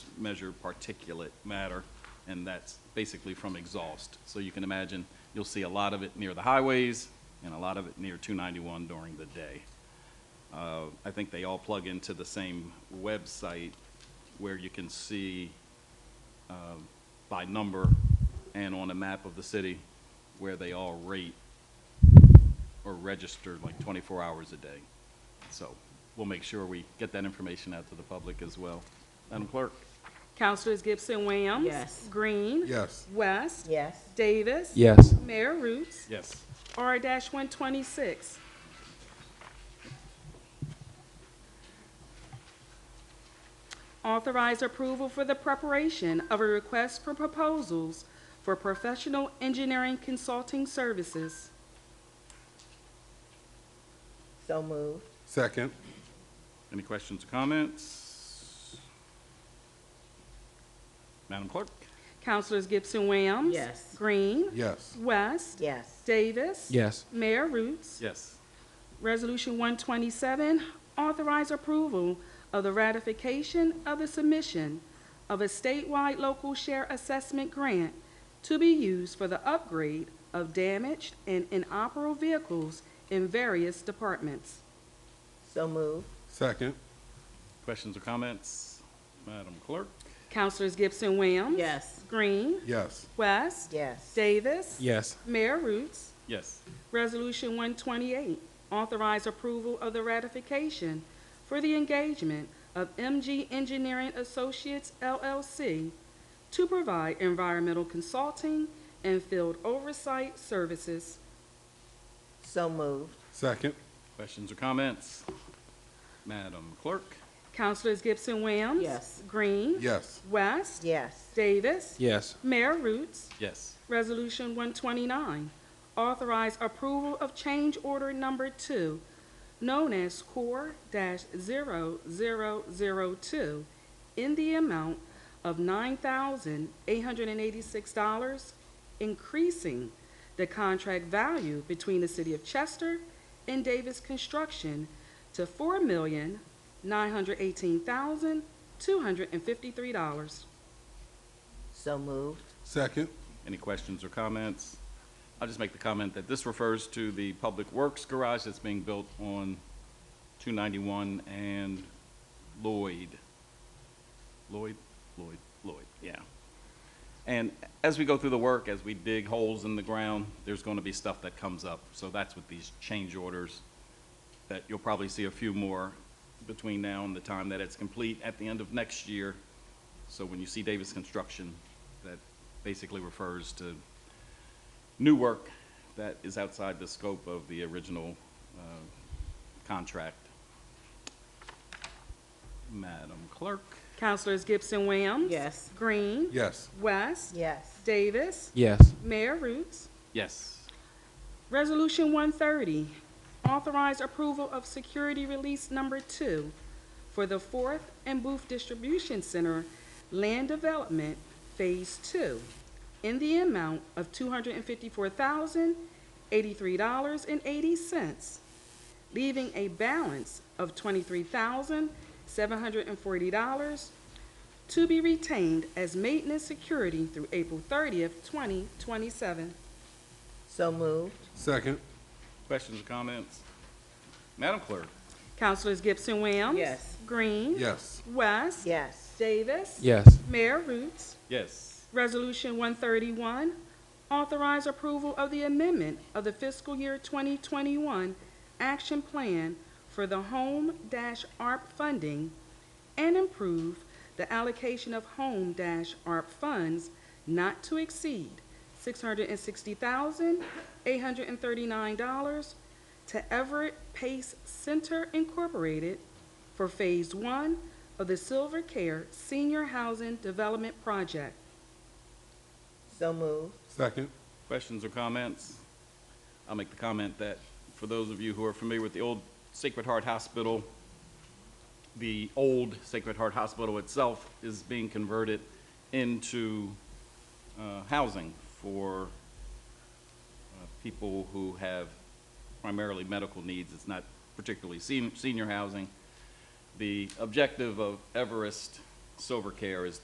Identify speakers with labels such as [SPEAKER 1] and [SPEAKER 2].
[SPEAKER 1] measure particulate matter, and that's basically from exhaust. So you can imagine, you'll see a lot of it near the highways and a lot of it near 291 during the day. Uh, I think they all plug into the same website where you can see um, by number and on a map of the city where they all rate or register like 24 hours a day. So we'll make sure we get that information out to the public as well. Madam Clerk?
[SPEAKER 2] Councilors Gibson, Whamms.
[SPEAKER 3] Yes.
[SPEAKER 2] Green.
[SPEAKER 4] Yes.
[SPEAKER 2] West.
[SPEAKER 3] Yes.
[SPEAKER 2] Davis.
[SPEAKER 5] Yes.
[SPEAKER 2] Mayor Roots.
[SPEAKER 1] Yes.
[SPEAKER 2] R one twenty-six. Authorize approval for the preparation of a request for proposals for professional engineering consulting services.
[SPEAKER 3] So moved.
[SPEAKER 4] Second.
[SPEAKER 1] Any questions or comments? Madam Clerk?
[SPEAKER 2] Councilors Gibson, Whamms.
[SPEAKER 3] Yes.
[SPEAKER 2] Green.
[SPEAKER 4] Yes.
[SPEAKER 2] West.
[SPEAKER 3] Yes.
[SPEAKER 2] Davis.
[SPEAKER 5] Yes.
[SPEAKER 2] Mayor Roots.
[SPEAKER 1] Yes.
[SPEAKER 2] Resolution 127, authorize approval of the ratification of the submission of a statewide local share assessment grant to be used for the upgrade of damaged and inoperable vehicles in various departments.
[SPEAKER 3] So moved.
[SPEAKER 4] Second.
[SPEAKER 1] Questions or comments? Madam Clerk?
[SPEAKER 2] Councilors Gibson, Whamms.
[SPEAKER 3] Yes.
[SPEAKER 2] Green.
[SPEAKER 4] Yes.
[SPEAKER 2] West.
[SPEAKER 3] Yes.
[SPEAKER 2] Davis.
[SPEAKER 5] Yes.
[SPEAKER 2] Mayor Roots.
[SPEAKER 1] Yes.
[SPEAKER 2] Resolution 128, authorize approval of the ratification for the engagement of MG Engineering Associates LLC to provide environmental consulting and field oversight services.
[SPEAKER 3] So moved.
[SPEAKER 4] Second.
[SPEAKER 1] Questions or comments? Madam Clerk?
[SPEAKER 2] Councilors Gibson, Whamms.
[SPEAKER 3] Yes.
[SPEAKER 2] Green.
[SPEAKER 4] Yes.
[SPEAKER 2] West.
[SPEAKER 3] Yes.
[SPEAKER 2] Davis.
[SPEAKER 5] Yes.
[SPEAKER 2] Mayor Roots.
[SPEAKER 1] Yes.
[SPEAKER 2] Resolution 129, authorize approval of change order number two, known as Core-0002, in the amount of $9,886, increasing the contract value between the City of Chester and Davis Construction to $4,918,253.
[SPEAKER 3] So moved.
[SPEAKER 4] Second.
[SPEAKER 1] Any questions or comments? I'll just make the comment that this refers to the Public Works Garage that's being built on 291 and Lloyd. Lloyd, Lloyd, Lloyd, yeah. And as we go through the work, as we dig holes in the ground, there's going to be stuff that comes up. So that's what these change orders, that you'll probably see a few more between now and the time that it's complete at the end of next year. So when you see Davis Construction, that basically refers to new work that is outside the scope of the original uh, contract. Madam Clerk?
[SPEAKER 2] Councilors Gibson, Whamms.
[SPEAKER 3] Yes.
[SPEAKER 2] Green.
[SPEAKER 4] Yes.
[SPEAKER 2] West.
[SPEAKER 3] Yes.
[SPEAKER 2] Davis.
[SPEAKER 5] Yes.
[SPEAKER 2] Mayor Roots.
[SPEAKER 1] Yes.
[SPEAKER 2] Resolution 130, authorize approval of security release number two for the Fourth and Booth Distribution Center Land Development Phase Two in the amount of $254,083.80, leaving a balance of $23,740 to be retained as maintenance security through April 30th, 2027.
[SPEAKER 3] So moved.
[SPEAKER 4] Second.
[SPEAKER 1] Questions or comments? Madam Clerk?
[SPEAKER 2] Councilors Gibson, Whamms.
[SPEAKER 3] Yes.
[SPEAKER 2] Green.
[SPEAKER 4] Yes.
[SPEAKER 2] West.
[SPEAKER 3] Yes.
[SPEAKER 2] Davis.
[SPEAKER 5] Yes.
[SPEAKER 2] Mayor Roots.
[SPEAKER 1] Yes.
[SPEAKER 2] Resolution 131, authorize approval of the amendment of the fiscal year 2021 action plan for the Home-ARP funding and improve the allocation of Home-ARP funds not to exceed $660,839 to Everett Pace Center Incorporated for Phase One of the Silver Care Senior Housing Development Project.
[SPEAKER 3] So moved.
[SPEAKER 4] Second.
[SPEAKER 1] Questions or comments? I'll make the comment that, for those of you who are familiar with the old Sacred Heart Hospital, the old Sacred Heart Hospital itself is being converted into uh, housing for uh, people who have primarily medical needs. It's not particularly sen- senior housing. The objective of Everest Silver Care is